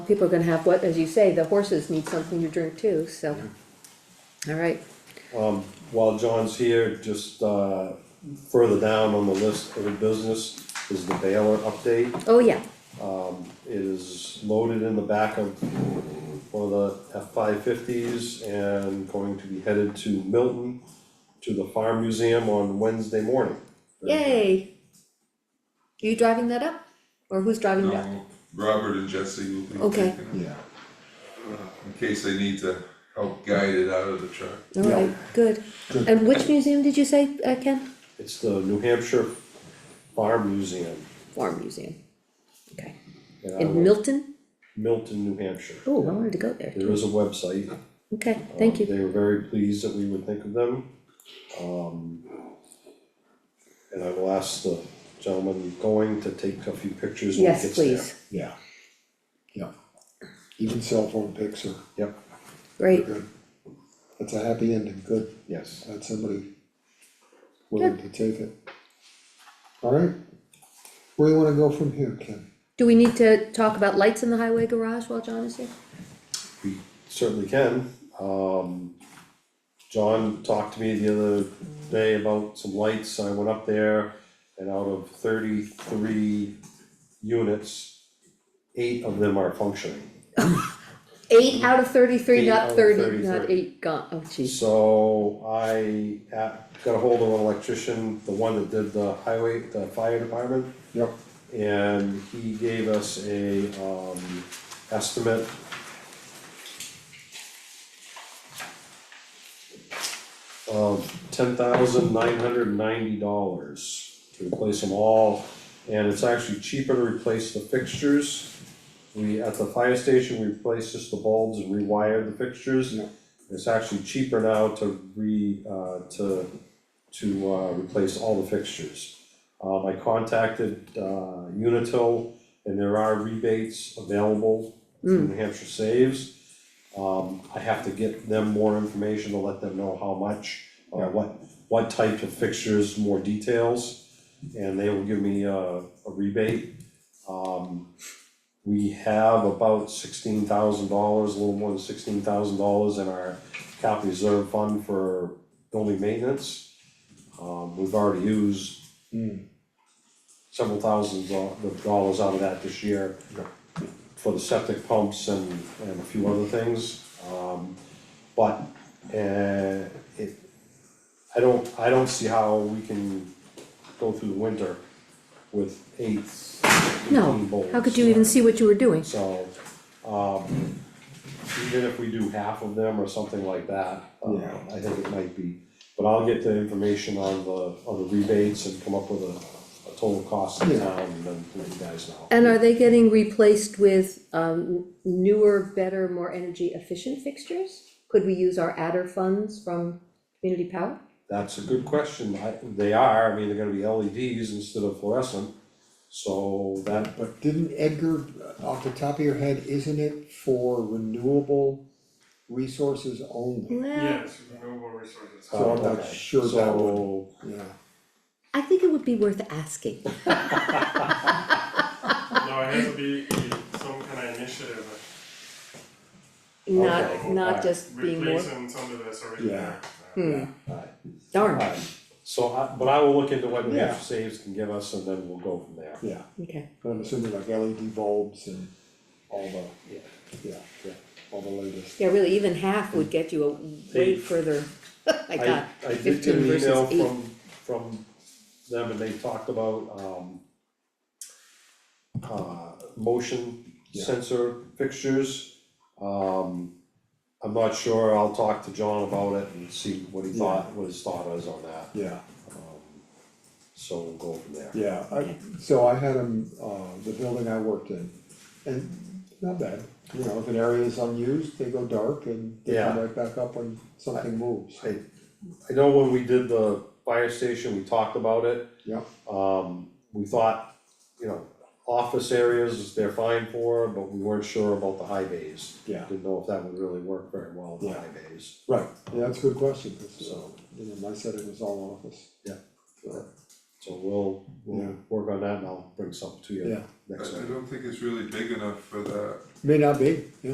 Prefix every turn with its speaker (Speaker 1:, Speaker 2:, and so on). Speaker 1: people are gonna have what, as you say, the horses need something to drink too, so. All right,
Speaker 2: Um, while John's here, just, uh, further down on the list of the business is the baler update.
Speaker 1: oh yeah,
Speaker 2: It is loaded in the back of one of the F five fifties and going to be headed to Milton to the Farm Museum on Wednesday morning.
Speaker 1: yay. You driving that up? Or who's driving that?
Speaker 3: No, Um, Robert and Jesse will be
Speaker 1: Okay.
Speaker 3: taking it,
Speaker 4: Yeah,
Speaker 3: in case they need to help guide it out of the truck.
Speaker 1: All right, good.
Speaker 4: Good.
Speaker 1: And which museum did you say, uh, Ken?
Speaker 2: It's the New Hampshire Farm Museum.
Speaker 1: Farm Museum. Okay,
Speaker 2: and I
Speaker 1: in
Speaker 2: will-
Speaker 1: Milton?
Speaker 2: Milton, New Hampshire.
Speaker 1: Oh, I wanted to go there.
Speaker 2: There is a website.
Speaker 1: Okay, thank
Speaker 2: Um,
Speaker 1: you.
Speaker 2: They were very pleased that we would think of them. Um, And I will ask the gentleman going to take a few pictures when he
Speaker 1: Yes,
Speaker 2: gets there.
Speaker 1: please.
Speaker 4: yeah, yeah. Even cell phone pics are
Speaker 2: Yep,
Speaker 1: Great,
Speaker 4: good. That's a happy ending, good,
Speaker 2: yes.
Speaker 4: had somebody willing to take it. All right, where do you wanna go from here, Ken?
Speaker 1: Do we need to talk about lights in the highway garage while John is here?
Speaker 2: We certainly can. Um, John talked to me the other day about some lights, I went up there and out of thirty-three units, eight of them are functioning.
Speaker 1: Eight out of thirty-three,
Speaker 2: Eight out
Speaker 1: not
Speaker 2: of
Speaker 1: thirty,
Speaker 2: 33.
Speaker 1: not eight gone, oh jeez.
Speaker 2: So I uh, got a hold of an electrician, the one that did the highway, the fire department,
Speaker 4: Yep,
Speaker 2: and he gave us a um estimate. Of ten thousand nine hundred and ninety dollars to replace them all, and it's actually cheaper to replace the fixtures. We, at the fire station, we replaced just the bulbs and rewired the fixtures.
Speaker 4: Yeah.
Speaker 2: It's actually cheaper now to re, uh, to, to uh, replace all the fixtures. Um, I contacted, uh, Unitil, and there are rebates available through New Hampshire Saves. Um, I have to get them more information to let them know how much, or what, what type of fixtures, more details, and they will give me a, a rebate. Um, we have about sixteen thousand dollars, a little more than sixteen thousand dollars in our capital reserve fund for building maintenance. Um, we've already used Hmm. several thousands of dollars out of that this year for the septic pumps and, and a few other things. Um, but, uh, it, I don't, I don't see how we can go through the winter with eight, eighteen
Speaker 1: No,
Speaker 2: bulbs.
Speaker 1: how could you even see what you were doing?
Speaker 2: So, um, even if we do half of them or something like that, um,
Speaker 4: Yeah.
Speaker 2: I think it might be. But I'll get the information on the, on the rebates and come up with a, a total cost in
Speaker 4: Yeah.
Speaker 2: town and then let you guys know.
Speaker 1: And are they getting replaced with um newer, better, more energy efficient fixtures? Could we use our adder funds from community power?
Speaker 2: That's a good question, I, they are, I mean, they're gonna be LEDs instead of fluorescent, so that, uh,
Speaker 4: but didn't Edgar, uh, off the top of your head, isn't it for renewable resources only?
Speaker 1: Well,
Speaker 5: Yes, renewable resources.
Speaker 4: So I'm
Speaker 2: Uh,
Speaker 4: not
Speaker 2: okay.
Speaker 4: sure that would,
Speaker 2: so,
Speaker 4: yeah,
Speaker 1: I think it would be worth asking.
Speaker 5: No, it has to be be some kind of initiative,
Speaker 1: Not,
Speaker 2: Okay.
Speaker 1: not
Speaker 2: Alright.
Speaker 1: just being more,
Speaker 5: replacing some of this already
Speaker 4: Yeah.
Speaker 5: there.
Speaker 1: hmm,
Speaker 2: alright,
Speaker 1: darn,
Speaker 2: alright. So I, but I will look into what New
Speaker 4: Yeah.
Speaker 2: Hampshire Saves can give us and then we'll go from there.
Speaker 4: yeah,
Speaker 1: okay,
Speaker 4: But I'm assuming like LED bulbs and all the,
Speaker 2: Yeah.
Speaker 4: yeah, yeah, all the latest.
Speaker 1: yeah, really, even half would get you a way
Speaker 2: They-
Speaker 1: further, my god,
Speaker 2: I did get
Speaker 1: 15
Speaker 2: an
Speaker 1: versus
Speaker 2: email
Speaker 1: eight.
Speaker 2: from, from them and they talked about, um, uh, motion
Speaker 4: Yeah.
Speaker 2: sensor fixtures. Um, I'm not sure, I'll talk to John about it and see what he thought, what his thought is on that, um,
Speaker 4: Yeah,
Speaker 2: so we'll go from there.
Speaker 4: yeah, I, so I had them, uh, the building I worked in, and not bad, you know, if an area is unused, they go dark and they come
Speaker 2: Yeah.
Speaker 4: right back up when something moves,
Speaker 2: I, I know when we did the fire station, we talked about it,
Speaker 4: yeah,
Speaker 2: Um, we thought, you know, office areas, they're fine for, but we weren't sure about the high bays.
Speaker 4: Yeah.
Speaker 2: Didn't know if that would really work very well, the
Speaker 4: Yeah.
Speaker 2: high bays,
Speaker 4: right, yeah, that's a good question, 'cause, uh,
Speaker 2: so,
Speaker 4: you know, my setting was all office.
Speaker 2: yeah. So we'll,
Speaker 4: Yeah.
Speaker 2: we'll work on that and I'll bring something to
Speaker 4: Yeah.
Speaker 2: you next
Speaker 3: I
Speaker 2: time.
Speaker 3: I don't think it's really big enough for that.
Speaker 4: may not be, yeah.